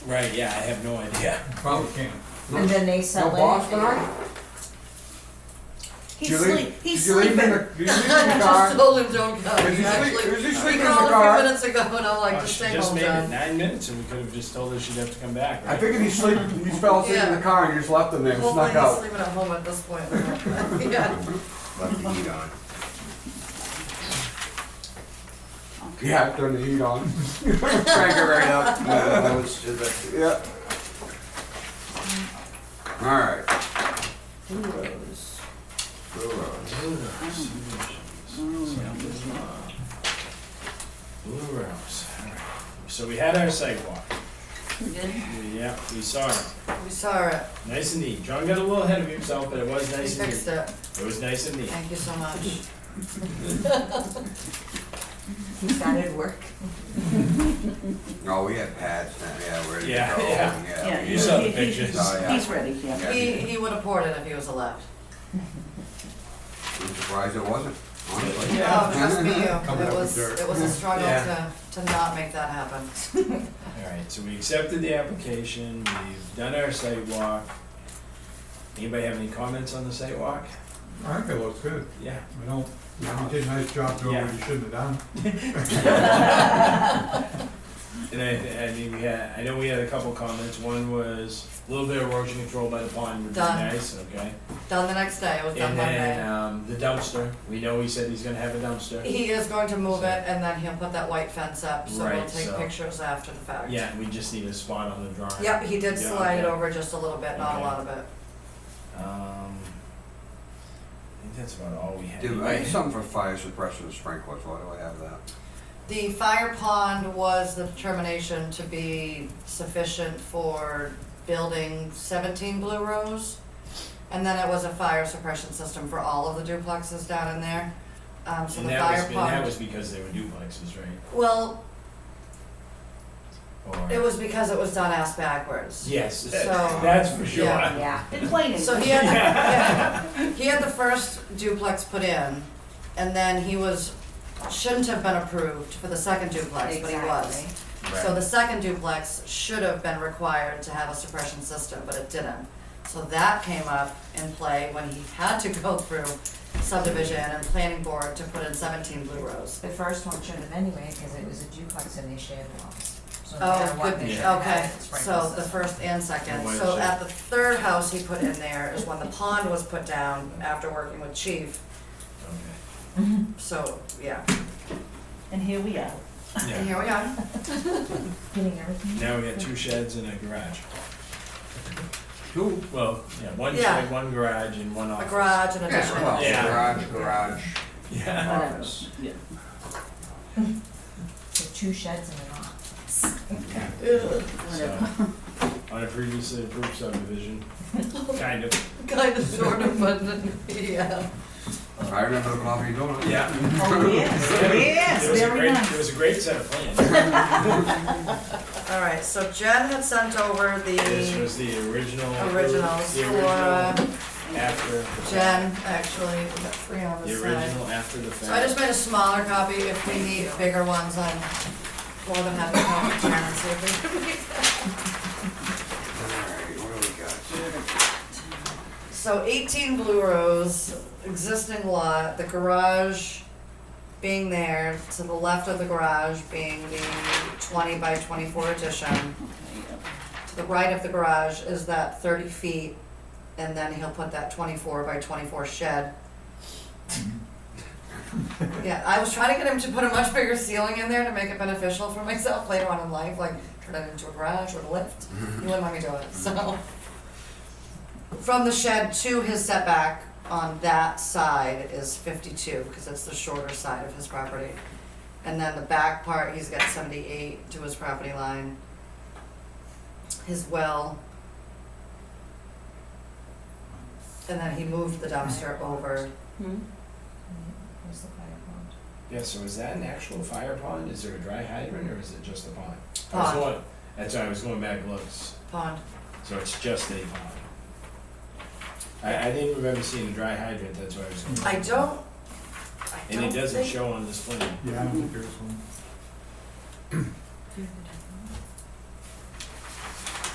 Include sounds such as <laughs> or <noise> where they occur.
Right, yeah, I have no idea. Probably can't. And then they No sell it. boss tonight? He's Did you leave- sleep, he's did you leave sleeping. him in the- Did you leave him in the just car? told him don't come. Did you Actually, sleep, did you We sleep in the called a few car? minutes ago and I'm like, Well, just Oh, she stay just home, made it John. nine minutes and we could have just told her she'd have to come back, I right? figured he sleep, he fell asleep in the Yeah. car and you just left him there, and Hopefully snuck he's out. sleeping at home at this <laughs> point. Yeah. left the heat on. Yeah, turn the heat on. Crank it right up. I was just like, Yep. Alright. Blue Rose, alright. So we had our sidewalk. Yeah, we saw it. We saw it. Nice and neat. John got a little ahead of himself, but it was We nice and fixed neat. it. It was nice and neat. Thank you so much. He started work. Oh, we had pads now, yeah, we're ready to go. Yeah, yeah. Yeah, You we saw did. the he- he- pictures. Oh, yeah. He's ready, yeah. Yeah, He, he would have poured it if he was allowed. I'm surprised it wasn't, honestly. No, Oh, trust me, you. Coming It up with was, dirt. it was a struggle Yeah. to, to not make that happen. <laughs> Alright, so we accepted the application, we've done our sidewalk. Anybody have any comments on the sidewalk? I think it looks good. Yeah. I don't, you did a nice job doing what you shouldn't have done. And I, I mean, we had, I know we had a couple comments, one was a little bit of erosion control by the pond would be Done. nice, okay? Done the next day, it was done And then, Monday. um, the dumpster, we know he said he's gonna have a dumpster. He is going to move it and then he'll put that white fence up, so we'll Right, take so- pictures after the fact. Yeah, we just need a spot on the drawing. Yep, he did Yeah, slide it okay. over just a little bit, not a Okay. lot of it. Um, I think that's about all we had. Dude, I need something for fire suppression and sprinklers, why do I have that? The fire pond was the determination to be sufficient for building seventeen Blue Rose. And then it was a fire suppression system for all of the duplexes down in there. Um, so And the that was, fire and that pond, was because they were duplexes, right? well, Or- it was because it was done ass backwards. Yes, that- So- <laughs> that's for sure. Yeah. Yeah, in plain So he English. <laughs> had, yeah, he had the first duplex put in, and then he was, shouldn't have been approved for the second duplex, but he was. Exactly. So Right. the second duplex should have been required to have a suppression system, but it didn't. So that came up in play when he had to go through subdivision and planning board to put in seventeen Blue Rose. The first one should have anyway, because it was a duplex and they shared walls. So no matter Oh, what, they goodness, should have okay, had sprinkler so the system. first and second, Why so is it- at the third house he put in there is when the pond was put down after working with chief, Okay. so, yeah, And here we are. <laughs> and Yeah. here we are. Getting everything. Now we got two sheds and a garage. Two. Well, yeah, one Yeah. shed, one garage, and one A office. garage and addition, Well, Yeah. Garage, garage, Yeah. office. Yeah. So two sheds and an off. So, <laughs> on a previously approved <laughs> subdivision, kind of, kind of sort of, but, yeah. I remember the coffee donut. yeah. Oh, yes, yes, It was a very great- nice. It was a great set of plans. All right, so Jen had sent over This the was the original. originals The for original uh, after. Jen, actually, we got three on The this side. original after the So I just fact. made a smaller copy, if we need bigger ones, I'm more than happy to call Jen and see if we can make that. Alright, what do we got? So eighteen Blue Rose, existing lot, the garage being there, to the left of the garage being the twenty by twenty-four addition. To the right of the garage is that thirty feet, and then he'll put that twenty-four by twenty-four shed. Yeah, I was trying to get him to put a much bigger ceiling in there to make it beneficial for myself later on in life, like turn it into a garage or a lift. He wouldn't let me do it, so. From the shed to his setback on that side is fifty-two, because it's the shorter side of his property. And then the back part, he's got seventy-eight to his property line. His well. And then he moved the dumpster over. Hmm? Where's the fire pond? Yeah, so is that an actual fire pond? Is there a dry hydrant or is it just a pond? I was Pond. going- That's why I was going back and looks. Pond. So it's just a pond. I, I didn't remember seeing a dry hydrant, that's why I was. I don't, I And don't it doesn't think- show on this plan. Yeah, I don't think there's one.